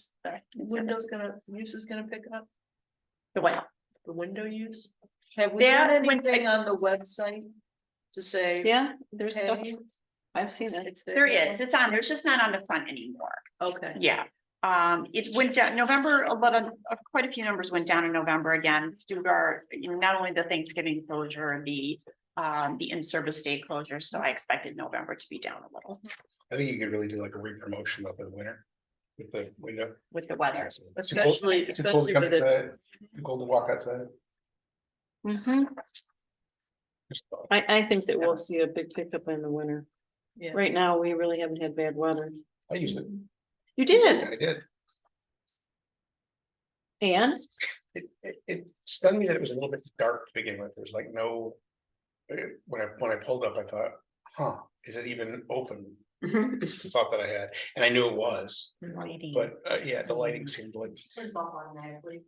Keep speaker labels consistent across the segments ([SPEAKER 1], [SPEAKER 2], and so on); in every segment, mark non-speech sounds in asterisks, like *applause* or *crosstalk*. [SPEAKER 1] Sorry.
[SPEAKER 2] Windows gonna, use is gonna pick up,
[SPEAKER 1] The what?
[SPEAKER 2] the window use? Have we
[SPEAKER 1] That
[SPEAKER 2] done
[SPEAKER 1] went-
[SPEAKER 2] anything on the website to say?
[SPEAKER 3] Yeah, there's stuff,
[SPEAKER 2] "Hey,
[SPEAKER 3] I've seen it.
[SPEAKER 2] it's
[SPEAKER 1] There is, it's on, there's just not on the front anymore.
[SPEAKER 2] Okay.
[SPEAKER 1] Yeah, um, it went down, November eleven, uh, quite a few numbers went down in November again, due to our, you know, not only the Thanksgiving closure and the. Um, the in-service day closure, so I expected November to be down a little
[SPEAKER 4] I think you could really do like a re-promotion over the winter. With the window.
[SPEAKER 1] with the weather.
[SPEAKER 2] Especially,
[SPEAKER 4] It's too cold
[SPEAKER 2] especially
[SPEAKER 4] to come
[SPEAKER 2] with it,
[SPEAKER 4] outside, too cold to walk outside.
[SPEAKER 3] Mm-hmm.
[SPEAKER 1] Mhm.
[SPEAKER 4] Just thought.
[SPEAKER 3] I, I think that we'll see a big pickup in the winter.
[SPEAKER 2] Yeah.
[SPEAKER 3] Right now, we really haven't had bad weather.
[SPEAKER 4] I used it.
[SPEAKER 3] You did,
[SPEAKER 4] I did.
[SPEAKER 3] and
[SPEAKER 4] It, it, it stunned me that it was a little bit dark to begin with. There's like no. uh, When I, when I pulled up, I thought, huh, is it even open?
[SPEAKER 3] *laughs*
[SPEAKER 4] It's the Thought that I had, and I knew it was,
[SPEAKER 1] Lighting.
[SPEAKER 4] but uh, yeah, the lighting seemed like,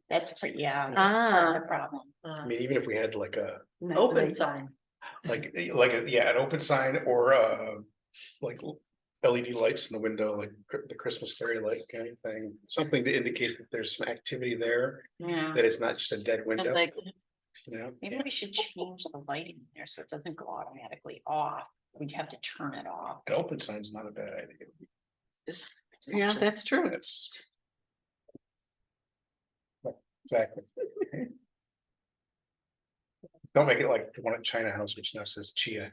[SPEAKER 1] That's pretty, yeah. that's part of
[SPEAKER 3] ah,
[SPEAKER 1] the Problem.
[SPEAKER 4] I
[SPEAKER 2] uh,
[SPEAKER 4] mean, even if we had like a,
[SPEAKER 2] Open sign,
[SPEAKER 4] like, eh, like, a yeah, an open sign or uh. Like LED lights in the window, like cr- the Christmas fairy light kind of thing, something to indicate that there's some activity there,
[SPEAKER 1] Yeah,
[SPEAKER 4] that it's not just a dead
[SPEAKER 3] I was
[SPEAKER 4] window,
[SPEAKER 3] Mm-hmm. like,
[SPEAKER 4] you know?
[SPEAKER 1] maybe we should change the lighting there so it doesn't go automatically off. We'd have to turn it off.
[SPEAKER 4] An open sign's not a bad idea.
[SPEAKER 3] yeah, that's true.
[SPEAKER 4] That's. Right, Exactly. Don't make it like the one at China House, which now says Chia.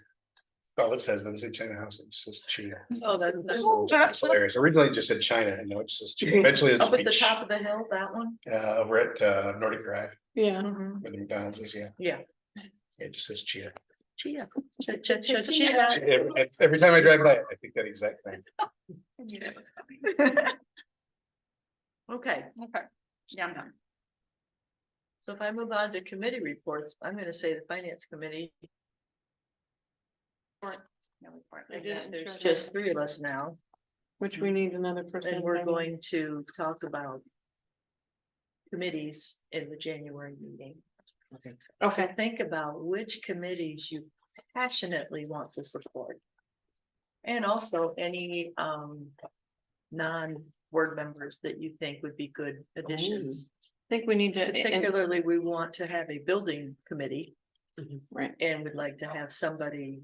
[SPEAKER 4] All it says, doesn't say China House, it just says Chia.
[SPEAKER 2] oh, that's, that's
[SPEAKER 4] So It's hilarious. Originally it just said China, and now it
[SPEAKER 2] *laughs*
[SPEAKER 4] just says Chia. Eventually
[SPEAKER 2] up at the
[SPEAKER 4] it's Chia,
[SPEAKER 2] top of the hill, that one?
[SPEAKER 4] uh, over at uh, Nordic Drive,
[SPEAKER 3] Yeah,
[SPEAKER 1] Mm-hmm.
[SPEAKER 2] Mhm.
[SPEAKER 4] where the McDonald's is, yeah.
[SPEAKER 2] Yeah.
[SPEAKER 4] It just says Chia.
[SPEAKER 2] Chia. Chia, chia, chia,
[SPEAKER 1] Chia.
[SPEAKER 2] chia.
[SPEAKER 4] Every every time I drive by, I think that exact thing.
[SPEAKER 2] *laughs* Okay,
[SPEAKER 1] Okay, yeah, I'm done.
[SPEAKER 2] so if I move on to committee reports, I'm gonna say the finance committee,
[SPEAKER 1] No report.
[SPEAKER 3] I
[SPEAKER 1] Yeah.
[SPEAKER 3] didn't.
[SPEAKER 2] there's just three of us now.
[SPEAKER 3] which we need another person.
[SPEAKER 2] And we're
[SPEAKER 3] to-
[SPEAKER 2] going to talk about committees in the January meeting.
[SPEAKER 3] Okay,
[SPEAKER 2] Think about which committees you passionately want to support. And also any um non-board members that you think would be good additions.
[SPEAKER 3] I think we need to, and-
[SPEAKER 2] Particularly, we want to have a building committee
[SPEAKER 3] right,
[SPEAKER 2] and would like to have somebody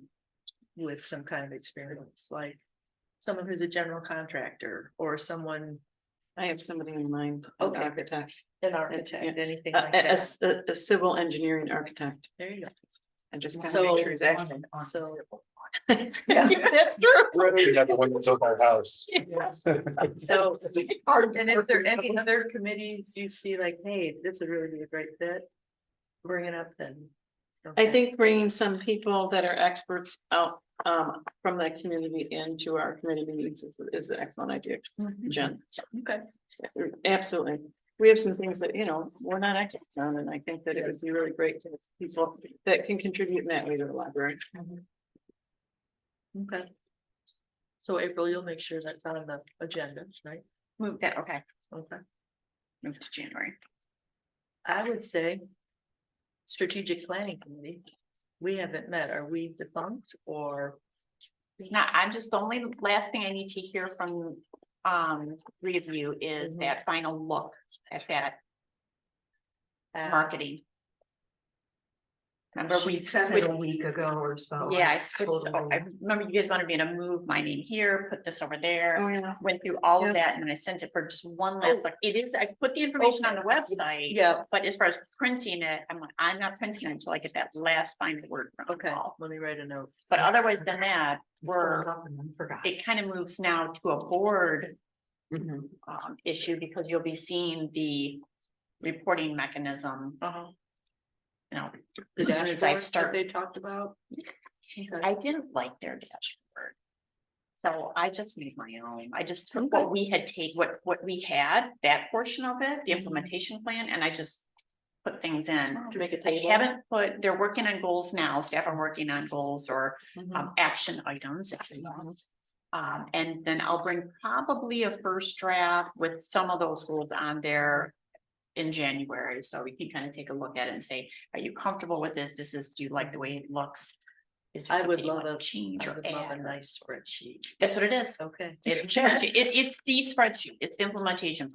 [SPEAKER 2] with some kind of experience, like someone who's a general contractor or someone
[SPEAKER 3] I have somebody in mind. an
[SPEAKER 2] Okay.
[SPEAKER 3] Architect,
[SPEAKER 2] an architect, anything
[SPEAKER 3] a,
[SPEAKER 2] like
[SPEAKER 3] a- a
[SPEAKER 2] that.
[SPEAKER 3] s- a- a civil engineering architect.
[SPEAKER 2] There you go.
[SPEAKER 3] I just.
[SPEAKER 2] So- So-
[SPEAKER 3] So. *laughs*
[SPEAKER 2] Yeah.
[SPEAKER 3] That's true.
[SPEAKER 4] Rather than the one that's over
[SPEAKER 2] *laughs*
[SPEAKER 4] our house.
[SPEAKER 2] So, and if there are any other committees you see like, hey, this would really be a great fit, bring it up then.
[SPEAKER 3] I
[SPEAKER 2] Okay.
[SPEAKER 3] think bringing some people that are experts out um from that community into our committee meetings is is an excellent idea,
[SPEAKER 1] Mm-hmm.
[SPEAKER 2] Mhm.
[SPEAKER 3] Jen.
[SPEAKER 2] Okay,
[SPEAKER 3] Absolutely. We have some things that, you know, we're not experts on, and I think that it would be really great to have people that can contribute in that way to the library.
[SPEAKER 2] okay. So April, you'll make sure that's on the agenda, right?
[SPEAKER 1] Move that, okay,
[SPEAKER 2] Okay,
[SPEAKER 1] move to January.
[SPEAKER 2] I would say. Strategic planning committee, we haven't met, are we defunct or?
[SPEAKER 1] It's Not, I'm just, the only last thing I need to hear from um three of you is
[SPEAKER 2] Mhm.
[SPEAKER 1] that final look at that
[SPEAKER 2] uh,
[SPEAKER 1] marketing. Remember we switched,
[SPEAKER 2] week ago or so.
[SPEAKER 1] yeah, I switched, oh, I remember you guys wanted me to move my name here, put this over there.
[SPEAKER 3] Oh, yeah.
[SPEAKER 1] Went through all
[SPEAKER 3] Yeah.
[SPEAKER 1] of that and then I sent it for just one last, look. it is, I put the information on the website.
[SPEAKER 2] Oh. Yeah,
[SPEAKER 1] But as far as printing it, I'm like, I'm not printing it until I get that last final word from
[SPEAKER 2] okay,
[SPEAKER 1] Paul.
[SPEAKER 2] let me write a note.
[SPEAKER 1] But otherwise than that, we're
[SPEAKER 2] Forgot.
[SPEAKER 1] it kind of moves now to a board
[SPEAKER 2] Mm-hmm.
[SPEAKER 1] um issue because you'll be seeing the reporting mechanism,
[SPEAKER 2] Uh-huh.
[SPEAKER 1] you know.
[SPEAKER 2] The
[SPEAKER 1] As soon as I
[SPEAKER 2] dashboard that
[SPEAKER 1] start-
[SPEAKER 2] They talked about. Okay.
[SPEAKER 1] I didn't like their dashboard. So I just made my own. I just took what we had take, what what we had, that portion of it, the
[SPEAKER 2] Mhm.
[SPEAKER 1] implementation plan, and I just put things in.
[SPEAKER 2] To make a
[SPEAKER 1] I
[SPEAKER 2] table.
[SPEAKER 1] haven't put, they're working on goals now, staff are working on goals or
[SPEAKER 2] Mhm.
[SPEAKER 1] um, action items. if you will. Um, and then I'll bring probably a first draft with some of those rules on there. In January, so we can kind of take a look at it and say, are you comfortable with this? This is, do you like the way it looks? Is there
[SPEAKER 2] I would
[SPEAKER 1] something you
[SPEAKER 2] love
[SPEAKER 1] wanna
[SPEAKER 2] a-
[SPEAKER 1] Change
[SPEAKER 2] I
[SPEAKER 1] or
[SPEAKER 2] would love a
[SPEAKER 1] add?
[SPEAKER 2] nice spreadsheet.
[SPEAKER 1] That's what it is.
[SPEAKER 2] Okay. *laughs*
[SPEAKER 1] It's, it- it's the spreadsheet, it's implementation plan.